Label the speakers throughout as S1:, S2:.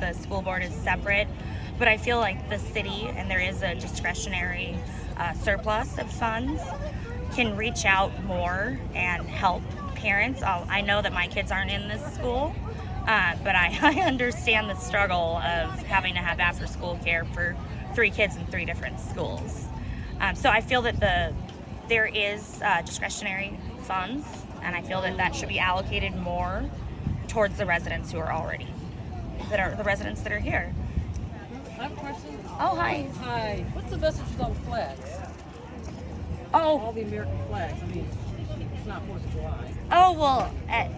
S1: the school board is separate. But I feel like the city, and there is a discretionary uh, surplus of funds, can reach out more and help parents. I'll, I know that my kids aren't in this school, uh, but I, I understand the struggle of having to have after school care for three kids in three different schools. Um, so I feel that the there is uh, discretionary funds, and I feel that that should be allocated more towards the residents who are already that are the residents that are here.
S2: I have a question.
S1: Oh hi.
S2: Hi. What's the message on flags? All
S1: Oh
S2: the American flags. I mean, it's not Fourth of July.
S1: oh well. Uh,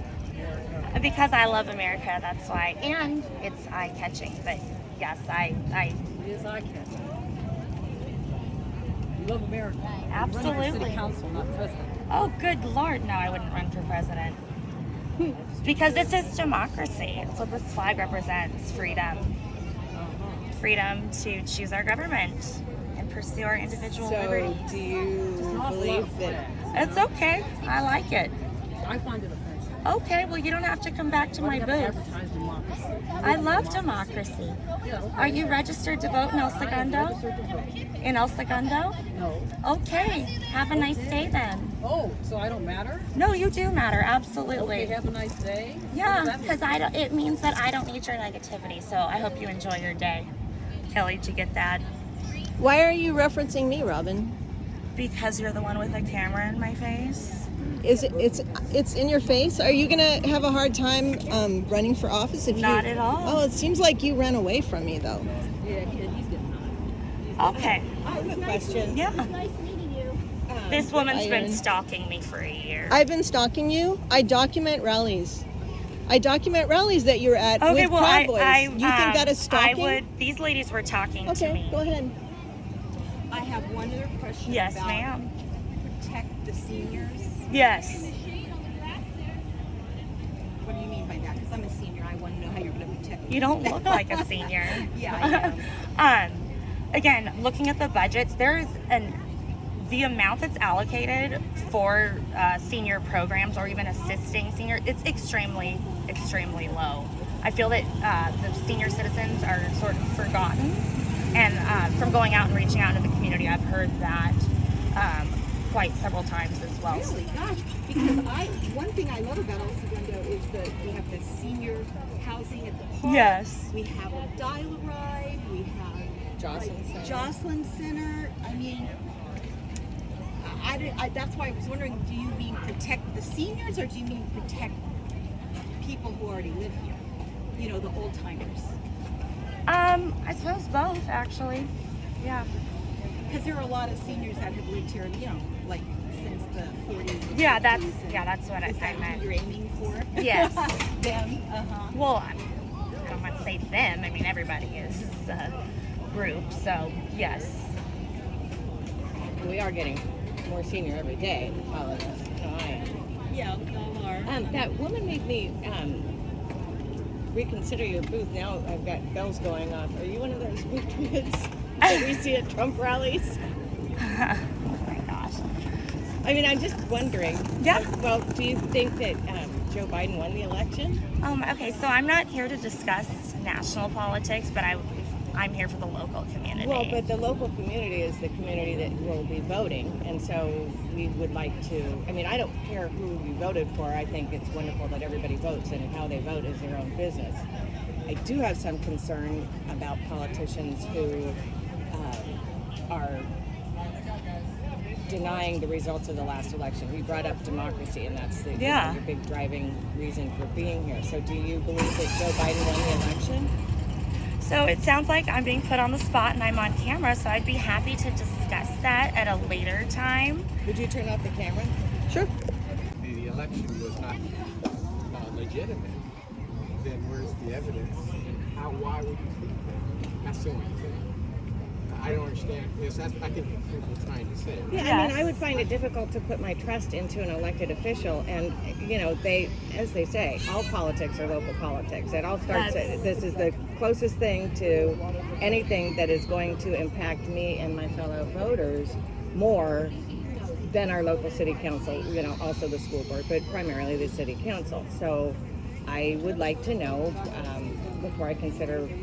S1: because I love America, that's why, and it's eye-catching. But yes, I, I
S2: It is eye catching. You love America. You run for
S1: Absolutely.
S2: City council, not president.
S1: Oh, good lord, no, I wouldn't run for president. Because this is democracy. It's what this flag represents freedom.
S2: Uh-huh.
S1: Freedom to choose our government and pursue our individual
S3: So,
S1: liberties.
S3: do
S1: Mm-hmm.
S2: Not
S3: you
S2: a lot
S3: believe
S2: of
S3: that?
S2: flags.
S1: It's okay. I like it.
S2: I find it offensive.
S1: Okay, well, you don't have to come back to my
S2: Why do you have to
S1: booth.
S2: Advertise democracy.
S1: I love democracy.
S2: Yeah, okay.
S1: Are you registered to vote in El
S2: I am
S1: Segundo?
S2: registered to vote.
S1: In El Segundo?
S2: No.
S1: Okay, have a nice day then.
S2: Oh, so I don't matter?
S1: No, you do matter,
S2: Okay,
S1: absolutely.
S2: have a nice day. What
S1: Yeah,
S2: does that mean?
S1: because I don't. It means that I don't need your negativity. So I hope you enjoy your day. Kelly, did you get that?
S3: Why are you referencing me, Robin?
S1: Because you're the one with a camera in my face.
S3: Is it? It's it's in your face. Are you gonna have a hard time um, running for office if you?
S1: Not at all.
S3: Oh, it seems like you ran away from me though.
S2: Yeah, kid, he's getting on.
S1: Okay.
S3: I have a question.
S1: Yeah.
S3: Um,
S1: This woman's been
S3: Iron.
S1: stalking me for a year.
S3: I've been stalking you. I document rallies. I document rallies that you're at
S1: Okay.
S3: with
S1: well,
S3: Proud
S1: I,
S3: Boys.
S1: I.
S3: you think that
S1: um,
S3: is stalking?
S1: I would. These ladies were talking to
S3: Okay,
S1: me.
S3: go ahead.
S4: I have one other question
S1: Yes,
S4: about
S1: ma'am.
S4: protect the seniors.
S1: Yes.
S4: What do you mean by that? Because I'm a senior. I want to know how you're going to protect.
S1: You
S4: me.
S1: don't look like a senior.
S4: Yeah, I am.
S1: um, again, looking at the budgets, there is an the amount that's allocated for uh, senior programs or even assisting senior, it's extremely, extremely low. I feel that uh, the senior citizens are sort of forgotten, and uh, from going out and reaching out to the community, I've heard that um, quite several times as well.
S4: Really, gosh. Because I, one thing I love about El Segundo is that we have the senior housing at the park.
S1: Yes.
S4: We have a dial a ride. We have
S3: Jocelyn Center.
S4: Jocelyn Center. I mean. I- I, did- I, that's why I was wondering, do you mean protect the seniors or do you mean protect people who already live here? You know, the old timers.
S1: Um, I suppose both actually. Yeah.
S4: Because there are a lot of seniors that have lived here, you know, like since the 40s.
S1: Yeah, that's yeah, that's what I,
S4: Is
S1: I
S4: that
S1: meant.
S4: who you're aiming for?
S1: Yes.
S4: Them. Uh huh.
S1: Well, I I don't want to say them. I mean, everybody is a group, so yes.
S5: We are getting more senior every day. all of us. No, I am.
S4: Yeah, we all are.
S5: Um, that woman made me um, reconsider your booth. Now I've got bells going off. Are you one of those patriots that we see at Trump rallies?
S1: Oh my gosh.
S5: I mean, I'm just wondering.
S1: Yeah.
S5: Well, do you think that um, Joe Biden won the election?
S1: Um, okay, so I'm not here to discuss national politics, but I, I'm here for the local community.
S5: Well, but the local community is the community that will be voting, and so we would like to. I mean, I don't care who you voted for. I think it's wonderful that everybody votes, and how they vote is their own business. I do have some concern about politicians who uh, are denying the results of the last election. We brought up democracy, and that's the
S1: Yeah.
S5: the big driving reason for being here. So, do you believe that Joe Biden won the election?
S1: So it sounds like I'm being put on the spot and I'm on camera, so I'd be happy to discuss that at a later time.
S5: Would you turn off the camera?
S3: Sure.
S6: the election was not uh, legitimate, then where's the evidence? And how, why would you think that? That's the only thing. I don't understand. Yes, that's, I think that's what we're trying to say. right?
S5: Yeah, I mean, I
S1: Yes.
S5: would find it difficult to put my trust into an elected official, and you know, they, as they say, all politics are local politics. It all starts.
S1: That's-
S5: This is the closest thing to anything that is going to impact me and my fellow voters more than our local city council. You know, also the school board, but primarily the city council. So, I would like to know um, before I consider